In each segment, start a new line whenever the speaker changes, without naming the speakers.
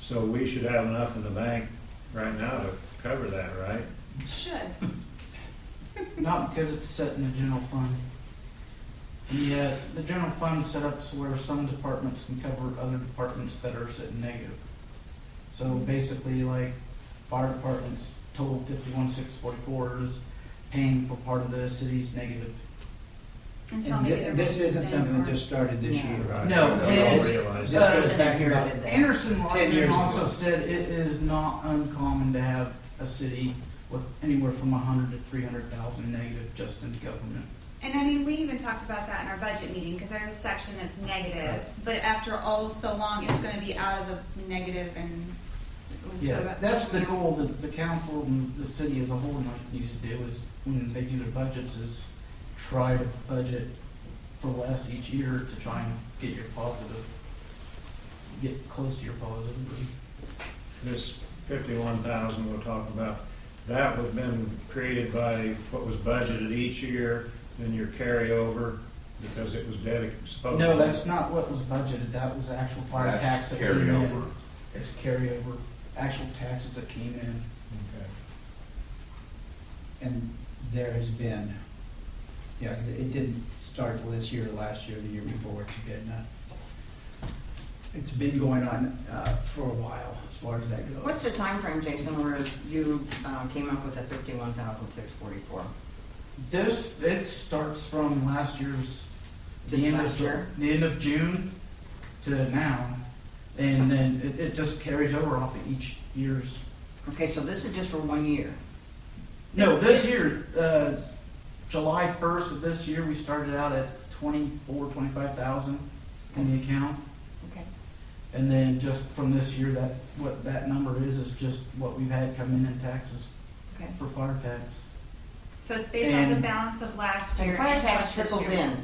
So we should have enough in the bank right now to cover that, right?
Should.
Not because it's set in the general fund. And yet, the general fund is set up so where some departments can cover other departments that are sitting negative. So basically, like, fire department's total fifty-one six forty-four is paying for part of the city's negative.
Until
And
maybe they're
thi- This
making
isn't
the
something
same
that just started this
No.
year.
Right.
No,
I
it
don't
is-
realize
This
that.
goes back here about
Anderson
ten years
Lockman also
ago.
said it is not uncommon to have a city with anywhere from hundred to three hundred thousand negative just in government.
And I mean, we even talked about that in our budget meeting, because there's a section that's negative, but after all so long, it's gonna be out of the negative and. and so
Yeah, that's the
you know,
goal that the council and the city as a whole might need to do is, when they do their budgets, is try to budget for less each year to try and get your positive, get close to your positive.
This fifty-one thousand we're talking about, that would have been created by what was budgeted each year, then your carryover, because it was dedicated, supposed.
No, that's not what was budgeted, that was actual fire tax
Oh.
that
That's
came in.
carryover.
It's carryover, actual taxes that came in.
Okay.
And there has been, yeah, it it didn't start till this year, last year, the year before, it's been, uh, it's been going on, uh, for a while, as far as that goes.
What's the time frame, Jason, where you uh, came up with the fifty-one thousand six forty-four?
This, it starts from last year's. the
This
end of
last
Ju-
year?
The end of June to now, and then it, it just carries over off of each year's.
Okay, so this is just for one year.
No, this year, uh, July first of this year, we started out at twenty-four, twenty-five thousand in the account.
Okay.
And then just from this year, that, what that number is, is just what we've had come in in taxes
Okay.
for fire tax.
So it's based on the
And-
balance of last year.
And fire tax
plus this
trickles
year.
in.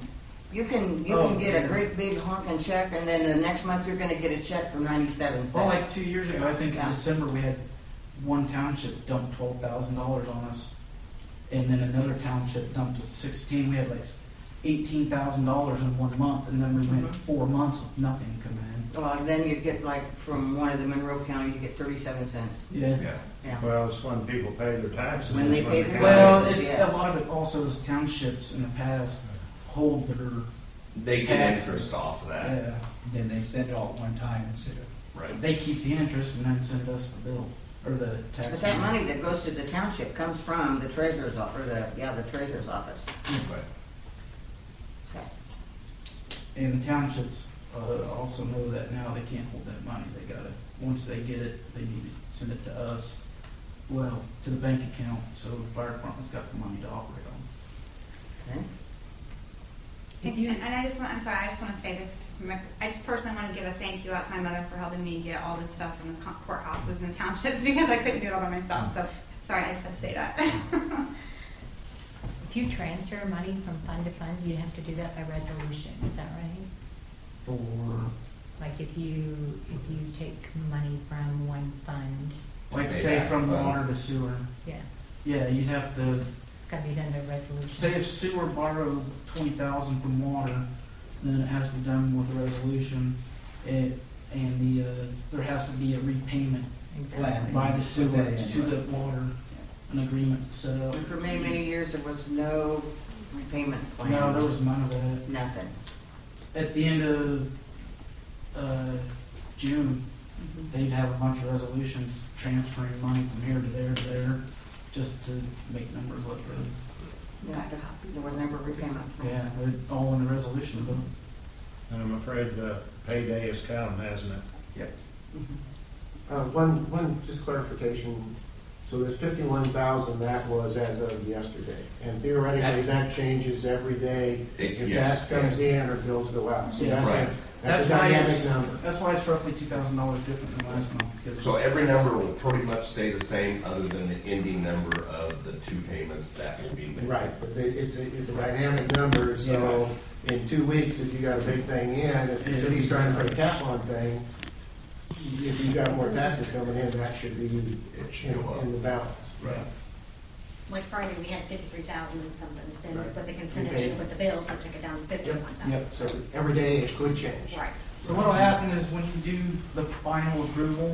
You can, you
Oh,
can get
yeah.
a great big honking check, and then the next month you're gonna get a check for ninety-seven
Well, like
cents.
two years ago, Oh, I think in
Yeah.
December, we had one township dump twelve thousand dollars on us. And then another township dumped sixteen, we had like eighteen thousand dollars in one month, and then we went
Mhm.
four months with nothing come in.
Well, and Uh, then you get like, from one of the Monroe County, you get thirty-seven cents,
Yeah.
Yeah.
yeah.
Well, it's when people pay their taxes.
When they
it's
pay
the
their
county-
Well,
taxes,
it's, a
yes.
lot of it also is townships in the past hold their
They get
taxes.
interest off of that,
Yeah.
Then they send it all at one time instead of
right?
They keep the interest and then send us the bill, or the tax.
But that money that goes to the township comes from the treasurer's office, or the, yeah, the treasurer's office.
But
Okay.
And the townships uh, also know that now they can't hold that money. They gotta, once they get it, they need to send it to us, well, to the bank account, so the fire department's got the money to operate on.
Okay.
And and I just want, I'm sorry, I just want to say this, my- I just personally want to give a thank you out to my mother for helping me get all this stuff from the co- courthouses and the townships because I couldn't do it all by myself, so, sorry, I just had to say that.
If you transfer money from fund to fund, you have to do that by resolution, is that right?
For,
Like if you, if you take money from one fund,
like,
Pay
say
back
from
the-
water to sewer,
yeah,
yeah, you'd have to,
it's gotta be done by resolution.
say if sewer borrowed twenty thousand from water, then it has to be done with a resolution, and, and the, uh, there has to be a repayment
Exactly.
by the
Put
sewer
that in.
to the water, an agreement set up.
And for many, many years, there was no repayment plan.
No, there was none of that.
Nothing.
at the end of uh, June, they'd have a bunch of resolutions transferring money from here to there to there, just to make numbers look good.
Yeah, there- there was never repayment plan.
Yeah, they're all in the resolution book.
And I'm afraid the payday is coming, hasn't it?
Yep.
Mm-hmm.
Uh, One, one, just clarification. So this fifty-one thousand, that was as of yesterday. And theoretically, that changes every day
It-
if gas
yes,
comes in or bills go out. So
Yeah.
that's
Right.
a, that's a
why it's
dynamic number.
That's why it's roughly two thousand dollars different than last month, because
So every number will pretty much stay the same, other than the ending number of the two payments that will be made.
Right, but it- it's, a- it's a dynamic number, so in two weeks, if you got a big thing in, if the city's trying to put a cap on thing, if you got more taxes coming in, that should be in
It should go up.
in the balance.
Right.
Like Friday, we had fifty-three thousand and something, then
Right.
with the consent
Okay.
agenda, with the bills, it took it down to fifty-one thousand.
Yep, so every day it could change.
Right.
So what'll happen is when you do the final approval,